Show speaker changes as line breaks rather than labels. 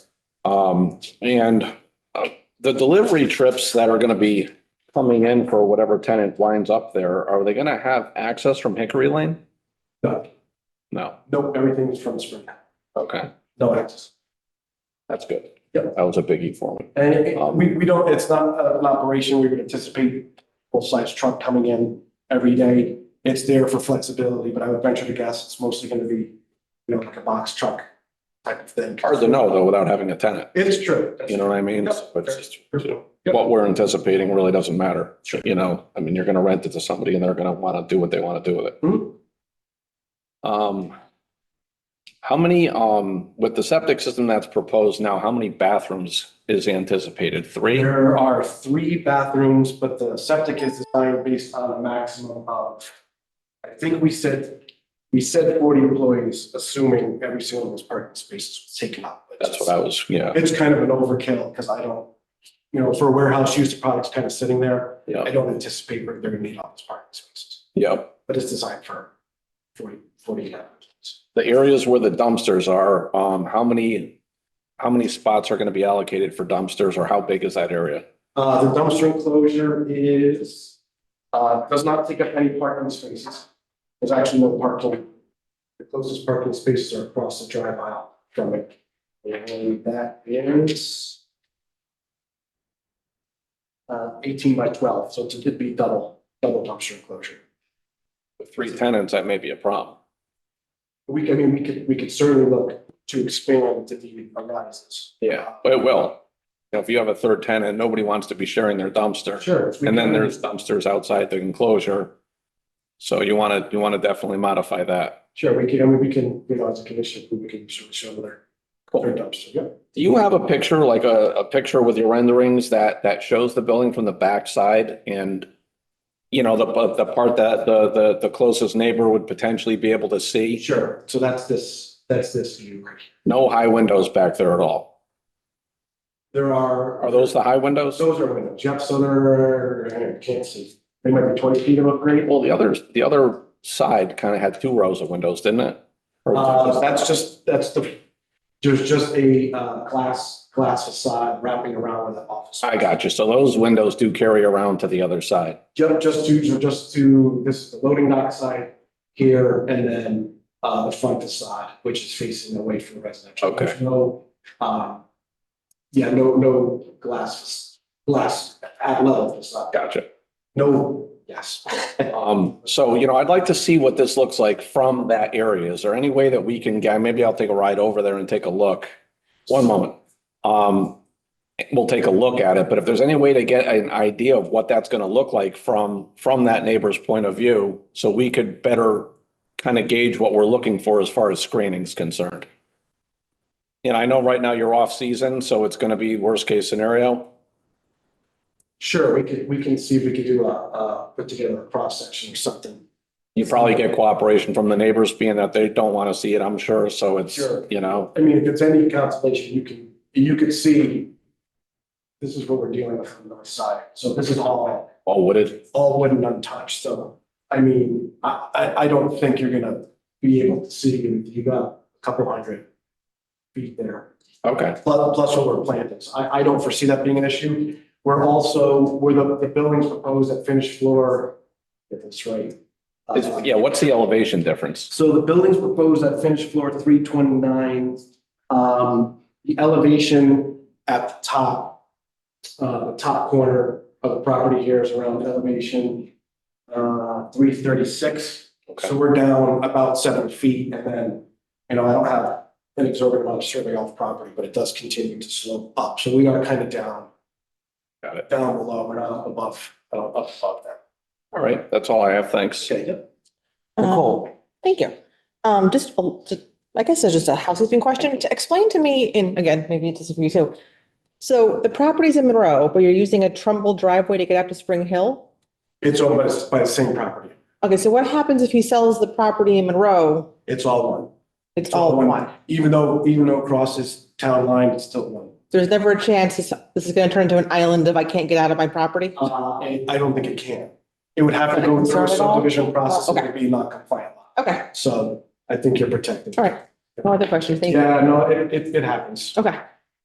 Um, and uh, the delivery trips that are gonna be coming in for whatever tenant winds up there, are they gonna have access from Hickory Lane?
No,
No,
no, everything is from Spring,
okay,
no access.
that's good.
Yep.
That was a biggie for me.
And it- it- we, we don't, it's not an operation we would anticipate full-size truck coming in every day. It's there for flexibility, but I would venture to guess it's mostly gonna be, you know, like a box truck type of thing.
Hard to know though, without having a tenant,
It's true.
you know what I mean?
Yep.
But just
Yep.
what we're anticipating really doesn't matter. You know, I mean, you're gonna rent it to somebody and they're gonna wanna do what they wanna do with it.
Mhm.
Um, how many, um, with the septic system that's proposed now, how many bathrooms is anticipated? Three?
There are three bathrooms, but the septic is designed based on a maximum of, I think we said, we said forty employees, assuming every single of those parking spaces was taken up.
That's what I was, yeah,
It's kind of an overkill because I don't, you know, for warehouse use, the product's kind of sitting there. I
yeah,
don't anticipate we're- they're gonna need all those parking spaces,
yeah.
but it's designed for forty, forty applicants.
The areas where the dumpsters are, um, how many, how many spots are gonna be allocated for dumpsters or how big is that area?
Uh, the dumpster enclosure is, uh, does not take up any parking spaces. There's actually no parking. The closest parking spaces are across the drive aisle from it. And that is uh, eighteen by twelve, so it's- it'd be double, double dumpster enclosure.
With three tenants, that may be a problem.
We, I mean, we could, we could certainly look to expand to the horizons.
Yeah, but it will. You know, If you have a third tenant, nobody wants to be sharing their dumpster.
Sure. if we
And then
can-
there's dumpsters outside the enclosure. So you want to, you want to definitely modify that.
Sure, we can, I mean, we can, you know, as a condition, we can show, show their, their dumpster, yeah.
Do you have a picture, like a, a picture with your renderings that, that shows the building from the backside and you know, the, but the part that the, the, the closest neighbor would potentially be able to see?
Sure, so that's this, that's this view right here.
No high windows back there at all.
There are.
Are those the high windows?
Those are windows, yep, so there, I can't see, they might be twenty feet of upgrade.
Well, the others, the other side kind of had two rows of windows, didn't it? Or
Uh, that's just, that's the, there's just a, uh, glass, glass facade wrapping around with an office.
I got you. So those windows do carry around to the other side.
Ju- Just to, just to, this is the loading dock side here and then uh, the front facade, which is facing away from residential.
Okay.
There's No, um, yeah, no, no glass, glass at level facade.
Gotcha.
No, yes.
Um, so, you know, I'd like to see what this looks like from that area. Is there any way that we can, get- maybe I'll take a ride over there and take a look. One moment. Um, we'll take a look at it, but if there's any way to get an idea of what that's going to look like from, from that neighbor's point of view, so we could better kind of gauge what we're looking for as far as screening's concerned. And I know right now you're off season, so it's going to be worst case scenario.
Sure, we could, we can see if we could do a, uh, put together a cross section or something.
You probably get cooperation from the neighbors being that they don't want to see it, I'm sure. So it's,
Sure.
you know,
I mean, if it's any consolation, you can, you could see this is what we're dealing with on the north side. So this is all
all wooded.
all wooden untouched, so, I mean, I, I, I don't think you're gonna be able to see, you got a couple hundred feet there,
Okay.
plus, plus what we're planting, So I, I don't foresee that being an issue. We're also, where the, the building's proposed at finished floor, if that's right. uh,
It's- yeah, what's the elevation difference?
so the building's proposed at finished floor three twenty-nine. Um, the elevation at the top, uh, the top corner of the property here is around elevation, uh, three thirty-six. So we're down about seven feet and then, you know, I don't have an exorbitant amount of survey off property, but it does continue to slope up. So we are kind of down,
Got it.
down below, we're not up above, uh, up above that.
All right. That's all I have. Thanks.
Okay, yep.
Um, Thank you. Um, just, a- just- I guess it's just a housekeeping question. To explain to me, and again, maybe it's just for you too. So the property's in Monroe, but you're using a Trumbull driveway to get up to Spring Hill?
It's owned by, the- by the same property.
Okay, so what happens if he sells the property in Monroe?
It's all one.
It's all one.
Even though, even though it crosses town line, it's still one.
There's never a chance this, this is gonna turn into an island if I can't get out of my property?
Uh, I don't think it can. It would have to go through a
Concerned at all?
subdivision process and it'd be not compliant.
Okay,
So I think you're protected.
all right. No other questions. Thank you.
Yeah, no, it, it, it happens.
Okay.